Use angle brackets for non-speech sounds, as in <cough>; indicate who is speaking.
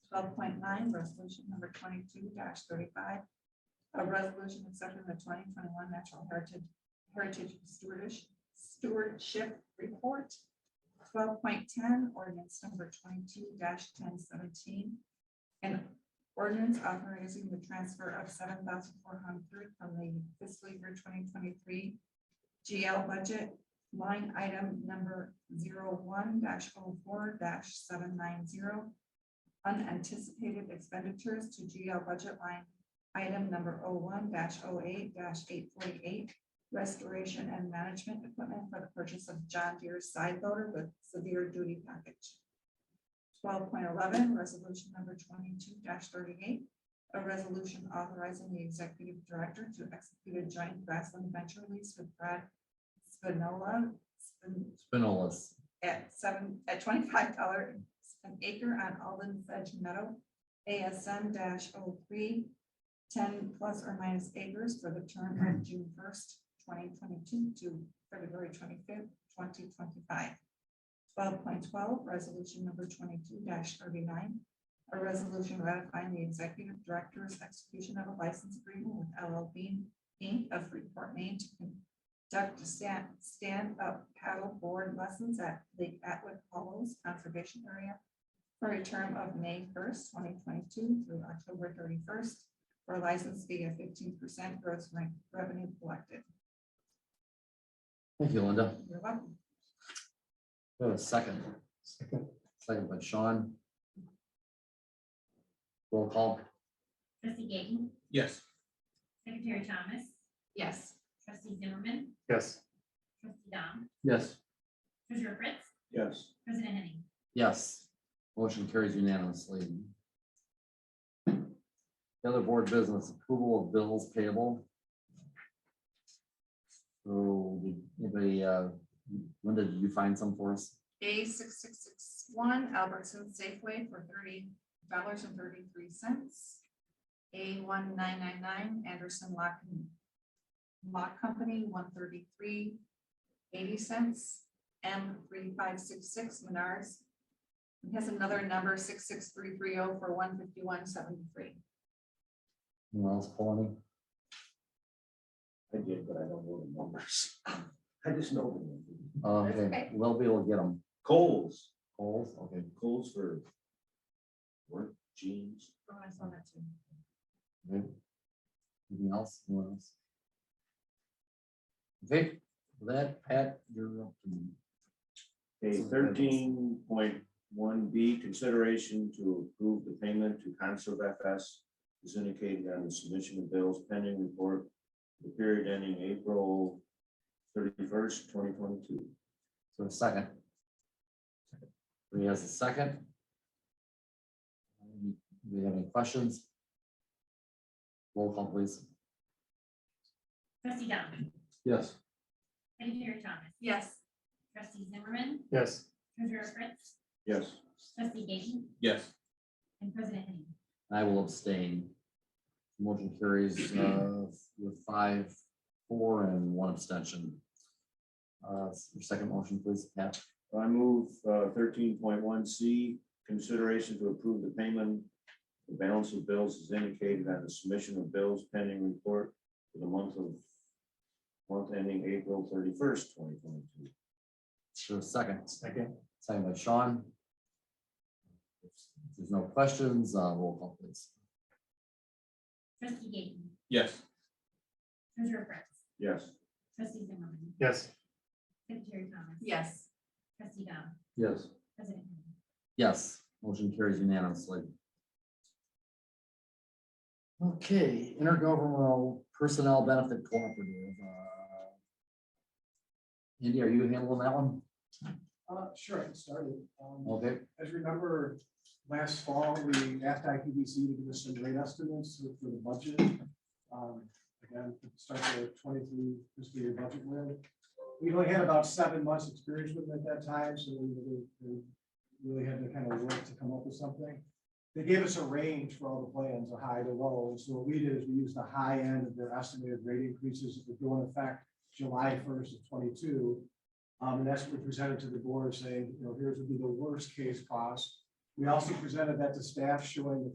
Speaker 1: Twelve point nine, resolution number twenty-two thirty-five. A resolution accepting the twenty twenty-one Natural Heritage Heritage Stewardship Stewardship Report. Twelve point ten, ordinance number twenty-two ten seventeen. An ordinance authorizing the transfer of seven thousand four hundred from the fiscal year twenty twenty-three GL budget line item number zero one dash oh four dash seven nine zero. Unanticipated expenditures to GL budget line item number oh one dash oh eight dash eight forty-eight. Restoration and management equipment for the purchase of John Deere side loader with severe duty package. Twelve point eleven, resolution number twenty-two thirty-eight. A resolution authorizing the executive director to execute a joint grassland venture lease with Brad Spinola Spin-
Speaker 2: Spinolas.
Speaker 1: at seven, at twenty-five dollar an acre on Alden Sedge Meadow, ASM 3 10 plus or minus acres for the term of June first, twenty twenty-two to February twenty-fifth, twenty twenty-five. Twelve point twelve, resolution number twenty-two thirty-nine, a resolution ratifying the executive director's execution of a license agreement with LL Bean, Inc. of Freeport, Maine to con- Duck to stand, stand up paddle board lessons at Lake Atwood Hollows Conservation Area for a term of May first, twenty twenty-two through October thirty-first, for a license fee of fifteen percent gross re- revenue collected.
Speaker 2: Thank you, Linda.
Speaker 1: You're welcome.
Speaker 2: We have a second.
Speaker 3: Second.
Speaker 2: Second by Sean. Roll call.
Speaker 4: Trustee Gayton,
Speaker 3: Yes.
Speaker 4: Secretary Thomas,
Speaker 1: Yes.
Speaker 4: Trustee Zimmerman,
Speaker 3: Yes.
Speaker 4: Trustee Dom,
Speaker 2: Yes.
Speaker 4: Treasurer Fritz,
Speaker 3: Yes.
Speaker 4: President Henning.
Speaker 2: Yes. Motion carries unanimously. The other board business approval of bills payable. So, did anybody, uh, Linda, did you find some for us?
Speaker 1: A six six six one Albertson Safeway for thirty dollars and thirty-three cents. A one nine nine nine Anderson Lock and Lock Company, one thirty-three eighty cents. M three five six six Menards. It has another number, six six three three oh for one fifty-one seventy-three.
Speaker 2: Anyone else pull any?
Speaker 3: I did, but I don't know the numbers.
Speaker 5: <laughs>
Speaker 3: I just know.
Speaker 2: Uh,
Speaker 1: That's
Speaker 2: Okay,
Speaker 1: okay.
Speaker 2: we'll be able to get them.
Speaker 3: Coles,
Speaker 2: Polls, okay.
Speaker 3: Coles for work jeans.
Speaker 1: Oh, I saw that too.
Speaker 2: Okay. Anything else? Anyone else? Okay, with that, Pat, you're up. to-
Speaker 5: A thirteen point one B, consideration to approve the payment to Conserve FS is indicated on the submission of bills pending report, the period ending April thirty-first, twenty twenty-two.
Speaker 2: So a second. Three has a second. Do we have any questions? Roll call please.
Speaker 4: Trustee Dom,
Speaker 3: Yes.
Speaker 4: Secretary Thomas,
Speaker 1: Yes.
Speaker 4: Trustee Zimmerman,
Speaker 3: Yes.
Speaker 4: Treasurer Fritz,
Speaker 5: Yes.
Speaker 4: Trustee Gayton,
Speaker 3: Yes.
Speaker 4: and President Henning.
Speaker 2: I will abstain. Motion carries uh, with five, four, and one abstention. Uh, Your second motion, please, Pat.
Speaker 5: I move uh, thirteen point one C, consideration to approve the payment. The balance of bills is indicated on the submission of bills pending report for the month of month ending April thirty-first, twenty twenty-two.
Speaker 2: Sure, second.
Speaker 3: Second.
Speaker 2: Second by Sean. If there's no questions, uh, roll call please.
Speaker 4: Trustee Gayton,
Speaker 3: Yes.
Speaker 4: Treasurer Fritz,
Speaker 5: Yes.
Speaker 4: Trustee Zimmerman,
Speaker 3: Yes.
Speaker 4: Secretary Thomas.
Speaker 1: Yes.
Speaker 4: Trustee Dom,
Speaker 3: Yes.
Speaker 4: President Henning.
Speaker 2: Yes, motion carries unanimously. Okay, intergovernmental personnel benefit cooperative. uh, Andy, are you handling that one?
Speaker 6: Uh, sure, I can start it. Um,
Speaker 2: Okay,
Speaker 6: As you remember, last fall, we asked IPBC to give us some rate estimates for the budget. Um, Again, to start the twenty-three fiscal year budget with. We only had about seven months' experience with it at that time, so we really- we really had to kind of work to come up with something. They gave us a range for all the plans, a high to low. So what we did is we used the high end of their estimated rate increases that would go in effect July first of twenty-two. Um, and that's what we presented to the board saying, you know, here's would be the worst case cost. We also presented that to staff showing the